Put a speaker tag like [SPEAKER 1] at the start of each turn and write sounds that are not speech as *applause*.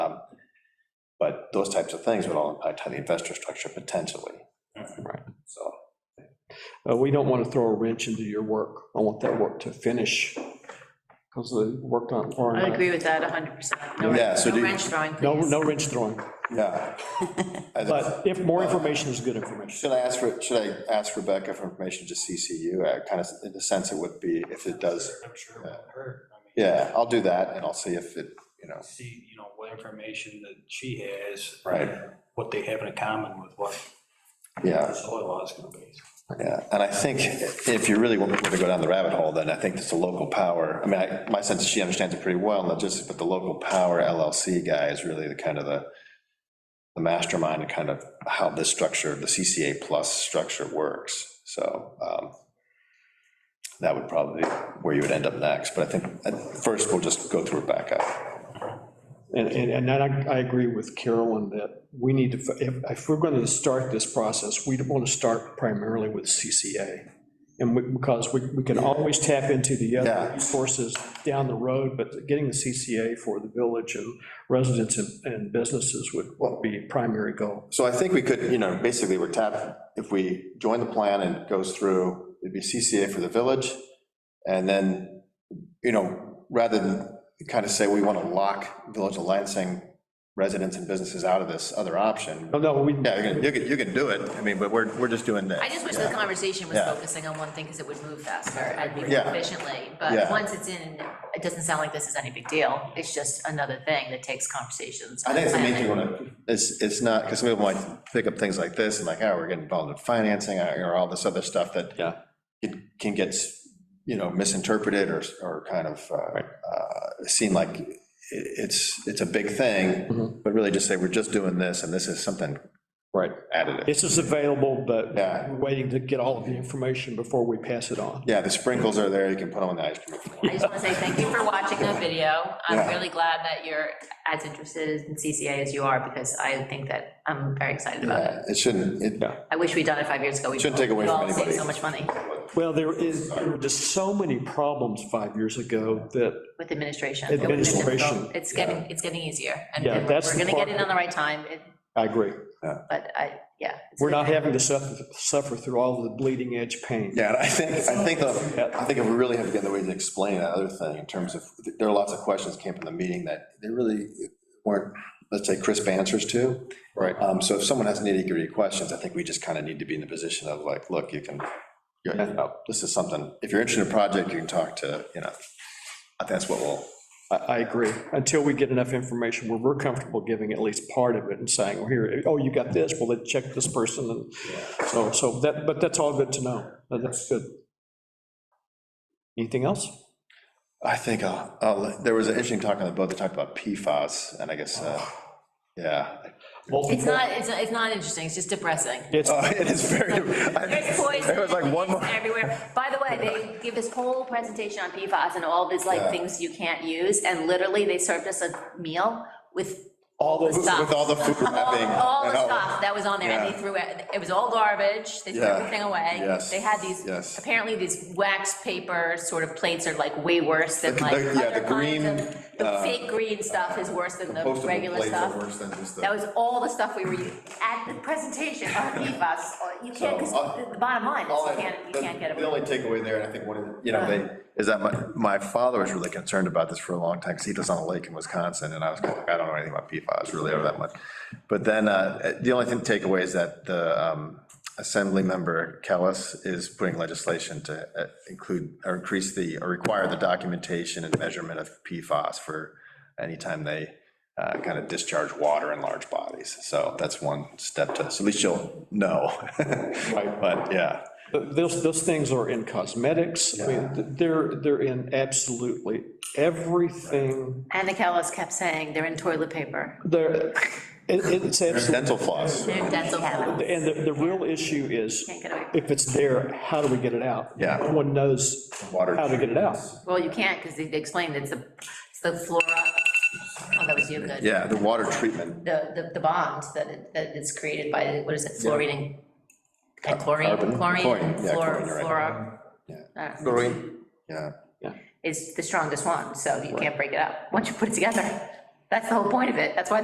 [SPEAKER 1] But those types of things would all impact how the investor structure potentially.
[SPEAKER 2] Right.
[SPEAKER 1] So,
[SPEAKER 2] Uh, We don't want to throw a wrench into your work. I want that work to finish, because the work on. Laura and
[SPEAKER 3] I agree with that 100%. No
[SPEAKER 1] Yeah,
[SPEAKER 3] wrench
[SPEAKER 1] so do
[SPEAKER 3] no
[SPEAKER 1] you-
[SPEAKER 3] wrench throwing,
[SPEAKER 2] No,
[SPEAKER 3] please.
[SPEAKER 2] no wrench throwing,
[SPEAKER 1] yeah. As a-
[SPEAKER 2] but if more information is good information.
[SPEAKER 1] Should I ask, Re- should I ask Rebecca for information to CCU, kind of, in the sense it would be, if it does,
[SPEAKER 4] I'm sure it won't hurt. I mean,
[SPEAKER 1] yeah, I'll do that, and I'll see if it, you know,
[SPEAKER 4] See, you know, what information that she has.
[SPEAKER 1] Right.
[SPEAKER 4] What they have in common with what
[SPEAKER 1] yeah,
[SPEAKER 4] the soil law is gonna be.
[SPEAKER 1] yeah. And I think if you really want me to go down the rabbit hole, then I think it's the local power, I mean, I- my sense is she understands it pretty well, not just, but the local power LLC guy is really the kind of the, the mastermind and kind of how this structure, the CCA plus structure works, so um, that would probably be where you would end up next, but I think, at first, we'll just go through Rebecca.
[SPEAKER 2] And, and, and that I, I agree with Carolyn that we need to, if, if we're going to start this process, we want to start primarily with CCA. And we- because we, we can always tap into the other
[SPEAKER 1] Yeah.
[SPEAKER 2] resources down the road, but getting the CCA for the village and residents and, and businesses would would be primary goal.
[SPEAKER 1] So I think we could, you know, basically, we're tap, if we join the plan and it goes through, it'd be CCA for the village, and then, you know, rather than kind of say, we want to lock Village of Lansing residents and businesses out of this other option,
[SPEAKER 2] No, Oh, no, we,
[SPEAKER 1] yeah, you can, you can, you can do it, I mean, but we're, we're just doing this.
[SPEAKER 3] I just wish the conversation was
[SPEAKER 1] Yeah.
[SPEAKER 3] focusing on one thing because it would move faster and be
[SPEAKER 1] Yeah.
[SPEAKER 3] more efficiently. But
[SPEAKER 1] Yeah.
[SPEAKER 3] once it's in, it doesn't sound like this is any big deal. It's just another thing that takes conversations.
[SPEAKER 1] I think it's the main thing,
[SPEAKER 3] planning.
[SPEAKER 1] when it's, it's not, because some people might pick up things like this, and like, oh, we're getting involved in financing, uh, or all this other stuff that
[SPEAKER 2] Yeah.
[SPEAKER 1] it can get, you know, misinterpreted or, or kind of uh,
[SPEAKER 2] Right.
[SPEAKER 1] uh, seem like i- it's, it's a big thing,
[SPEAKER 2] Mhm.
[SPEAKER 1] but really just say, we're just doing this, and this is something
[SPEAKER 2] right.
[SPEAKER 1] additive.
[SPEAKER 2] This is available, but
[SPEAKER 1] Yeah.
[SPEAKER 2] we're waiting to get all of the information before we pass it on.
[SPEAKER 1] Yeah, the sprinkles are there, you can put them on the ice cream. if you
[SPEAKER 2] *laughs*
[SPEAKER 1] want.
[SPEAKER 3] I just want to say thank you for watching the video. I'm
[SPEAKER 1] Yeah.
[SPEAKER 3] really glad that you're as interested in CCA as you are because I think that I'm very excited about it.
[SPEAKER 1] Yeah, It shouldn't, it,
[SPEAKER 3] I wish we'd done it five years ago. We
[SPEAKER 1] Shouldn't take away from
[SPEAKER 3] We'd all saved
[SPEAKER 1] anybody.
[SPEAKER 3] so much money
[SPEAKER 2] Well, there is, there were just so many problems five years ago that
[SPEAKER 3] with administration. It would've been
[SPEAKER 2] Administration,
[SPEAKER 3] difficult. It's getting, it's getting easier. and
[SPEAKER 2] Yeah,
[SPEAKER 3] and
[SPEAKER 2] that's
[SPEAKER 3] We're
[SPEAKER 2] the
[SPEAKER 3] gonna get
[SPEAKER 2] part
[SPEAKER 3] in on the right time, it-
[SPEAKER 2] I agree.
[SPEAKER 3] but I, yeah. it's
[SPEAKER 2] We're
[SPEAKER 3] good.
[SPEAKER 2] not having to suffer, suffer through all the bleeding edge pain.
[SPEAKER 1] Yeah, and I think, I think, the- I think if we really have to get the way to explain that other thing in terms of, there are lots of questions that came from the meeting that they really weren't, let's say, crisp answers to.
[SPEAKER 2] Right.
[SPEAKER 1] Um, so if someone has nitty gritty questions, I think we just kind of need to be in the position of like, look, you can, you know, oh, this is something, if you're interested in a project, you can talk to, you know, I think that's what we'll,
[SPEAKER 2] I, I agree. Until we get enough information where we're comfortable giving at least part of it and saying, well, here, oh, you got this, well, then check this person. And so, so that, but that's all good to know. That- That's good. Anything else?
[SPEAKER 1] I think, I'll- I'll- there was an interesting talk on the boat, they talked about PFAS, and I guess, uh, yeah.
[SPEAKER 3] It's not, it's, not- it's not interesting, it's just depressing.
[SPEAKER 2] It's,
[SPEAKER 1] Oh, It is very,
[SPEAKER 3] There's
[SPEAKER 1] I-
[SPEAKER 3] poison.
[SPEAKER 1] there was like one more.
[SPEAKER 3] Everywhere. By the way, they give this whole presentation on PFAS and all these like
[SPEAKER 1] Yeah.
[SPEAKER 3] things you can't use, and literally they served us a meal with
[SPEAKER 2] all
[SPEAKER 3] the
[SPEAKER 2] those,
[SPEAKER 3] stuff.
[SPEAKER 1] With all the food
[SPEAKER 3] All,
[SPEAKER 1] wrapping.
[SPEAKER 3] all the
[SPEAKER 1] and all-
[SPEAKER 3] stuff that was on there, and
[SPEAKER 1] Yeah.
[SPEAKER 3] they threw it, it was all garbage, they threw
[SPEAKER 1] Yeah.
[SPEAKER 3] everything away.
[SPEAKER 1] Yes.
[SPEAKER 3] They had these,
[SPEAKER 1] Yes.
[SPEAKER 3] apparently these wax paper sort of plates are like way worse than
[SPEAKER 1] The-
[SPEAKER 3] like
[SPEAKER 1] the- *laughs* yeah,
[SPEAKER 3] other
[SPEAKER 1] the
[SPEAKER 3] kinds of-
[SPEAKER 1] green,
[SPEAKER 3] The
[SPEAKER 1] uh,
[SPEAKER 3] fake green stuff is worse than the
[SPEAKER 1] Compostable
[SPEAKER 3] regular
[SPEAKER 1] plates are
[SPEAKER 3] stuff.
[SPEAKER 1] worse than just the-
[SPEAKER 3] That was all the stuff we were using at the presentation E on
[SPEAKER 1] *laughs*
[SPEAKER 3] PFAS. You can't, because
[SPEAKER 1] So, uh,
[SPEAKER 3] the bottom line is
[SPEAKER 1] All I-
[SPEAKER 3] you can't, you
[SPEAKER 1] the-
[SPEAKER 3] can't get
[SPEAKER 1] The
[SPEAKER 3] away.
[SPEAKER 1] only takeaway there, and I think one of, the you know, they, is that my, my father was really concerned about this for a long time, because he lives on a lake in Wisconsin, and I was kind of like, I don't know anything about PFAS really, or that much. But then, uh, the only thing, takeaway is that the um, Assemblymember Kellis is putting legislation to uh, include, or increase the, or require the documentation and measurement of PFAS for anytime they kind of discharge water in large bodies. So that's one step to, so at least you'll know. *laughs* But, yeah.
[SPEAKER 2] those, those things are in cosmetics. I mean, they're, they're in absolutely everything.
[SPEAKER 3] Anna Callis kept saying they're in toilet paper.
[SPEAKER 2] They're, it, it's absolutely.
[SPEAKER 1] Dental floss.
[SPEAKER 3] They're in dental paper.
[SPEAKER 2] And the, the real issue is,
[SPEAKER 3] Can't get away.
[SPEAKER 2] if it's there, how do we get it out?
[SPEAKER 1] Yeah.
[SPEAKER 2] No one knows
[SPEAKER 1] Water.
[SPEAKER 2] how to get it out.
[SPEAKER 3] Well, you can't because they explained it's the, it's the flora. Oh, that was you, good.
[SPEAKER 1] Yeah, the water treatment.
[SPEAKER 3] The, the, the bond that, it- that it's created by, what is it, fluorine? And Chlorine,
[SPEAKER 1] Carbon.
[SPEAKER 3] chlorine,
[SPEAKER 1] Chlorine, yeah,
[SPEAKER 3] fluor-
[SPEAKER 1] chlorine, you're right.
[SPEAKER 3] fluor.
[SPEAKER 1] Yeah.
[SPEAKER 3] I don't know.
[SPEAKER 1] Yeah.
[SPEAKER 3] It's the strongest one, so you can't break it up once you put it together. That's the whole point of it. That's why